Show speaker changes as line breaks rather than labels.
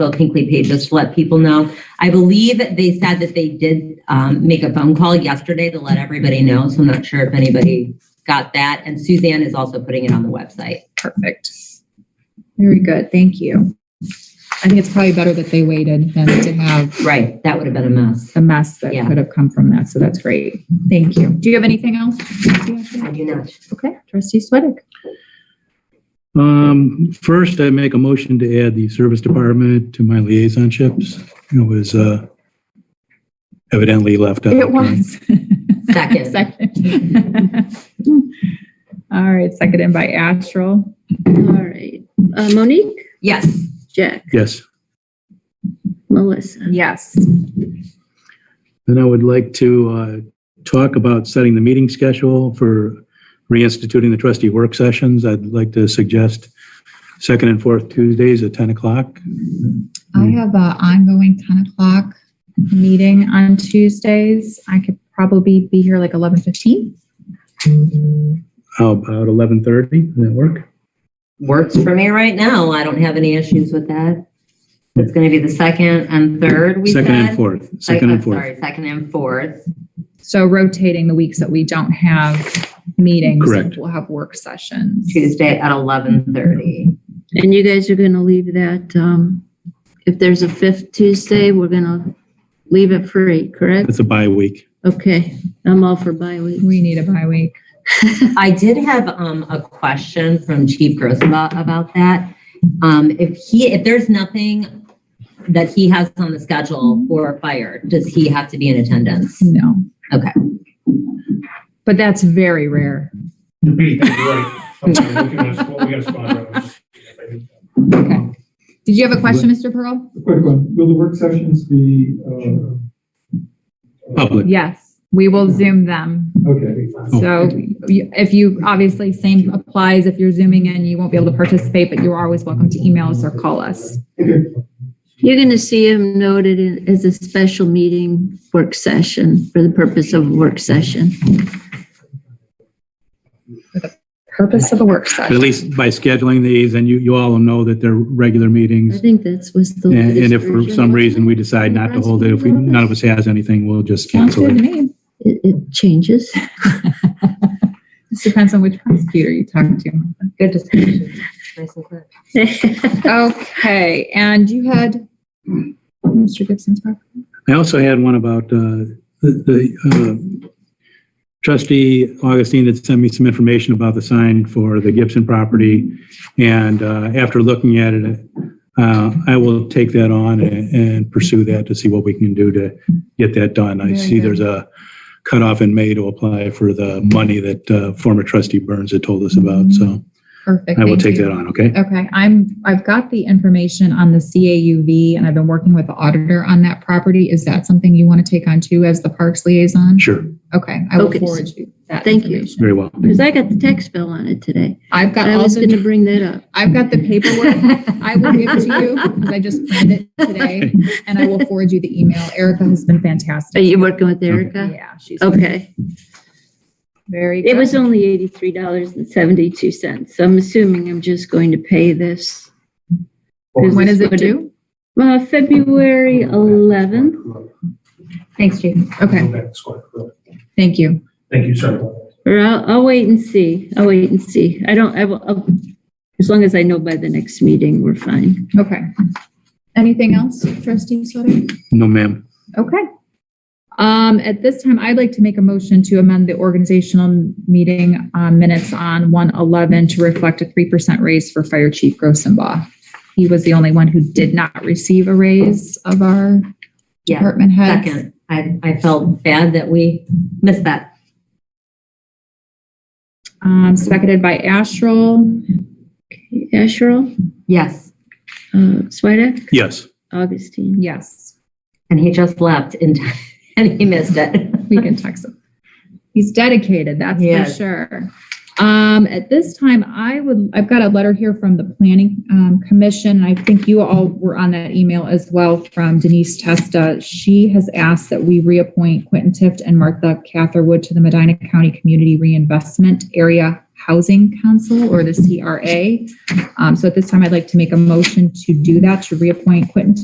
Bill Hinckley paid, just to let people know. I believe they said that they did um, make a phone call yesterday to let everybody know, so I'm not sure if anybody got that. And Suzanne is also putting it on the website.
Perfect. Very good. Thank you. I think it's probably better that they waited than to have
Right. That would have been a mess.
the mess that
Yeah.
could have come from that. So that's great. Thank you. Do you have anything else?
I do not.
Okay, trustee Sweattick.
Um, first, I make a motion to add the service department to my liaisonships. It was, uh, evidently left out.
It was.
Second.
Second. All right, seconded by Astral.
All right. Uh, Monique,
Yes.
Jack,
Yes.
Melissa.
Yes.
Then I would like to, uh, talk about setting the meeting schedule for reinstituting the trustee work sessions. I'd like to suggest second and fourth Tuesdays at 10 o'clock.
I have a ongoing 10 o'clock meeting on Tuesdays. I could probably be here like 11:15.
How about 11:30? Does that work?
Works for me right now. I don't have any issues with that. It's going to be the second and third, we said.
Second and fourth, second
Like,
and
I'm
fourth.
Sorry, second and fourth.
So rotating the weeks that we don't have meetings.
Correct.
We'll have work sessions.
Tuesday at 11:30.
And you guys are going to leave that, um, if there's a fifth Tuesday, we're going to leave it free, correct?
That's a bye week.
Okay. I'm all for bi-week.
We need a bye week.
I did have um, a question from Chief Grosma about that. Um, If he, if there's nothing that he has on the schedule for fire, does he have to be in attendance?
No.
Okay.
But that's very rare.
Hey, that's right. Okay, looking at us, well, we got a spot right now.
Okay. Did you have a question, Mr. Pearl?
Quick one, will the work sessions be, uh? uh,
Public.
Yes, we will Zoom them.
Okay.
So you- if you, obviously, same applies. If you're Zooming in, you won't be able to participate, but you're always welcome to email us or call us.
Okay.
You're going to see him noted in- as a special meeting work session for the purpose of work session.
Purpose of a work
But at
session.
least by scheduling these, and you, you all know that they're regular
I
meetings.
think that's was the.
And and
latest
if for
version,
some
wasn't
reason
it?
we decide not to hold it, if we, none of us has anything, we'll just cancel
Sounds
it.
good to me.
It, it changes.
This depends on which prosecutor you talk to.
Good discussion. Nice and clear.
Okay, and you had Mr. Gibson's part?
I also had one about uh, the- the uh, trustee Augustine had sent me some information about the sign for the Gibson property. And uh, after looking at it, uh, I will take that on and and pursue that to see what we can do to get that done. I
Very
see
good.
there's a cutoff in May to apply for the money that uh, former trustee Burns had told us about. So
Perfect.
I will
thank
take
you.
that on, okay?
Okay, I'm, I've got the information on the CAUV and I've been working with the auditor on that property. Is that something you want to take on too as the parks liaison?
Sure,
Okay, I will
Okay.
forward you that
Thank you.
information.
very well.
Because I got the text bill on it today.
I've got
I
all
was going to
the,
bring that up.
I've got the paperwork. I will give it to you because I just planned it today and I will forward you the email. Erica has been
Are
fantastic.
you working with Erica?
Yeah, she's
Okay.
very
It
good.
was only eighty-three dollars and seventy-two cents. I'm assuming I'm just going to pay this.
When is it due? Oh,
Uh, February eleventh.
Thanks, Chief.
Okay, thank you.
Thank you, sir.
Or I'll, I'll wait and see. I'll wait and see. I don't, I will, I'll- as long as I know by the next meeting, we're fine.
Okay. Anything else, trustee Sutter?
No, ma'am.
Okay. Um, at this time, I'd like to make a motion to amend the organizational meeting uh, minutes on one eleven to reflect a three percent raise for Fire Chief Grossenbaugh. He was the only one who did not receive a raise of our
Yeah,
department heads.
second. I, I felt bad that we missed that.
Um, seconded by Astral,
Asherle,
Yes.
uh, Swedek,
Yes.
Augustine.
yes,
And he just left in time and he missed it.
we can text him. He's dedicated, that's for
Yes.
sure. Um, at this time, I would, I've got a letter here from the planning, um, commission. and I think you all were on that email as well from Denise Testa. She has asked that we reappoint Quentin Tift and Martha Catherwood to the Medina County Community Reinvestment Area Housing Council or the CRA. Um, So at this time, I'd like to make a motion to do that, to reappoint Quentin